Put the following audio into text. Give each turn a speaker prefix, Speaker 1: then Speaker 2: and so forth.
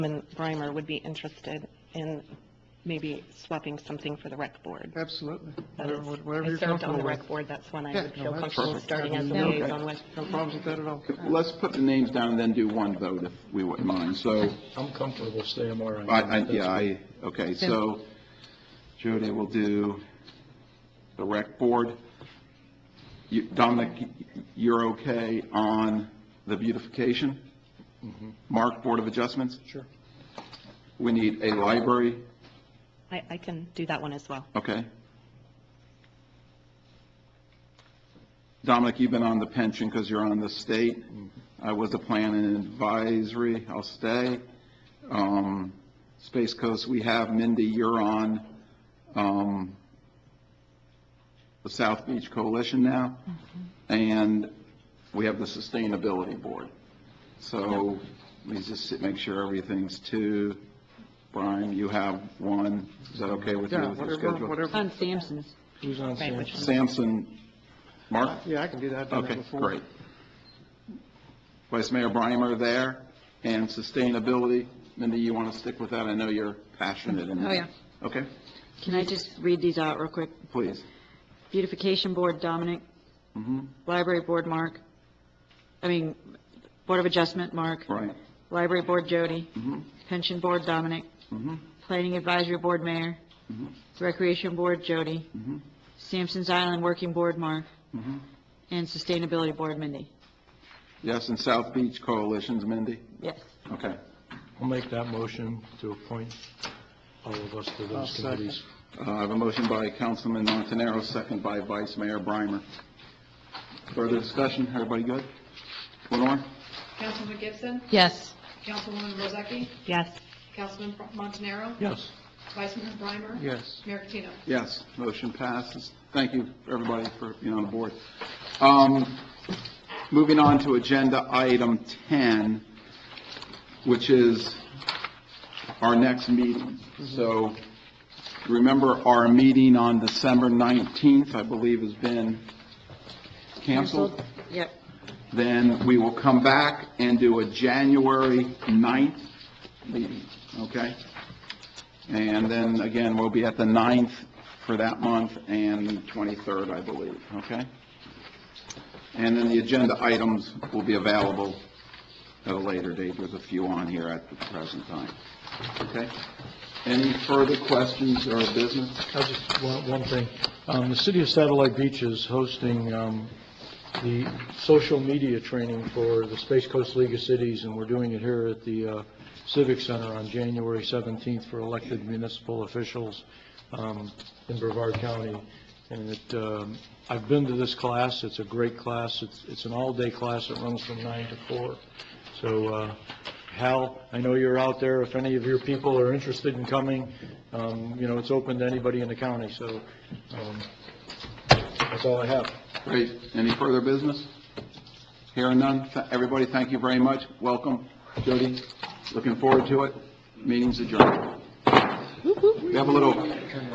Speaker 1: and Brimer would be interested in maybe swapping something for the rec board.
Speaker 2: Absolutely.
Speaker 1: That
Speaker 2: Whatever-
Speaker 1: is-
Speaker 2: Whatever you're
Speaker 1: I served on
Speaker 2: comfortable
Speaker 1: the
Speaker 2: with.
Speaker 1: rec board, that's when I
Speaker 2: Yeah,
Speaker 1: would
Speaker 2: no,
Speaker 1: feel
Speaker 2: that's
Speaker 1: comfortable
Speaker 2: perfect.
Speaker 1: starting as a
Speaker 2: Absolutely.
Speaker 1: liaison with.
Speaker 2: No problems with that at all.
Speaker 3: Let's put the names down and then do one vote if we wouldn't mind. So,
Speaker 4: I'm comfortable with CMRI.
Speaker 3: I, I, yeah, I, okay, so Jody will do the rec board. You- Dominic, you're okay on the beautification? Mark, Board of Adjustments?
Speaker 4: Sure.
Speaker 3: We need a library,
Speaker 1: I, I can do that one as well.
Speaker 3: okay? Dominic, you've been on the pension because you're on the state. I was the plan and advisory, I'll stay. Um, Space Coast, we have, Mindy, you're on, um, the South Beach Coalition now, and we have the Sustainability Board. So, let me just sit- make sure everything's two. Brian, you have one, is that okay with you?
Speaker 2: Yeah,
Speaker 3: with your
Speaker 2: whatever,
Speaker 3: schedule?
Speaker 2: whatever.
Speaker 4: Who's on
Speaker 1: Right, which
Speaker 4: CMRI?
Speaker 1: one?
Speaker 3: Sampson, Mark?
Speaker 2: Yeah, I can do that. I've done that
Speaker 3: Okay,
Speaker 2: before.
Speaker 3: great. Vice Mayor Brimer there, and sustainability, Mindy, you want to stick with that? I know you're passionate in that.
Speaker 5: Oh, yeah.
Speaker 3: Okay,
Speaker 5: Can I just read these out real quick?
Speaker 3: please.
Speaker 5: Beautification Board, Dominic.
Speaker 3: Mhm.
Speaker 5: Library Board, Mark. I mean, Board of Adjustment, Mark.
Speaker 3: Right.
Speaker 5: Library Board, Jody.
Speaker 3: Mhm.
Speaker 5: Pension Board, Dominic.
Speaker 3: Mhm.
Speaker 5: Planning Advisory Board, Mayor.
Speaker 3: Mhm.
Speaker 5: Recreation Board, Jody.
Speaker 3: Mhm.
Speaker 5: Sampson's Island Working Board, Mark.
Speaker 3: Mhm.
Speaker 5: And Sustainability Board, Mindy.
Speaker 3: Yes, and South Beach Coalitions, Mindy?
Speaker 5: Yes.
Speaker 3: Okay.
Speaker 4: I'll make that motion to appoint all of us to
Speaker 2: I'll
Speaker 4: those
Speaker 2: second.
Speaker 4: committees.
Speaker 3: Uh, I have a motion by Councilman Montanaro, second by Vice Mayor Brimer. Further discussion, everybody good? Lenore?
Speaker 6: Councilwoman Gibson?
Speaker 5: Yes.
Speaker 6: Councilwoman Rosecki?
Speaker 1: Yes,
Speaker 6: Councilman Montanaro?
Speaker 4: Yes.
Speaker 6: Vice Mayor Brimer?
Speaker 2: Yes.
Speaker 6: Mayor Patino?
Speaker 3: Yes, motion passes. Thank you, everybody, for being on the board. Um, Moving on to Agenda Item 10, which is our next meeting. So remember, our meeting on December 19th, I believe, has been canceled.
Speaker 5: Yep.
Speaker 3: Then we will come back and do a January 9th meeting, okay? And then again, we'll be at the 9th for that month and 23rd, I believe, okay? And then the agenda items will be available at a later date. There's a few on here at the present time, okay? Any further questions or business?
Speaker 4: I just, one, one thing. Um, the city of Satellite Beach is hosting, um, the social media training for the Space Coast League of Cities, and we're doing it here at the uh, Civic Center on January 17th for elected municipal officials um, in Brevard County. And it, um, I've been to this class, it's a great class, it's, it's an all-day class, it runs from nine to four. So, uh, Hal, I know you're out there, if any of your people are interested in coming, um, you know, it's open to anybody in the county, so, um, that's all I have.
Speaker 3: Great. Any further business? Hearing none. Th- Everybody, thank you very much. Welcome. Jody, looking forward to it. Meeting's adjourned. We have a little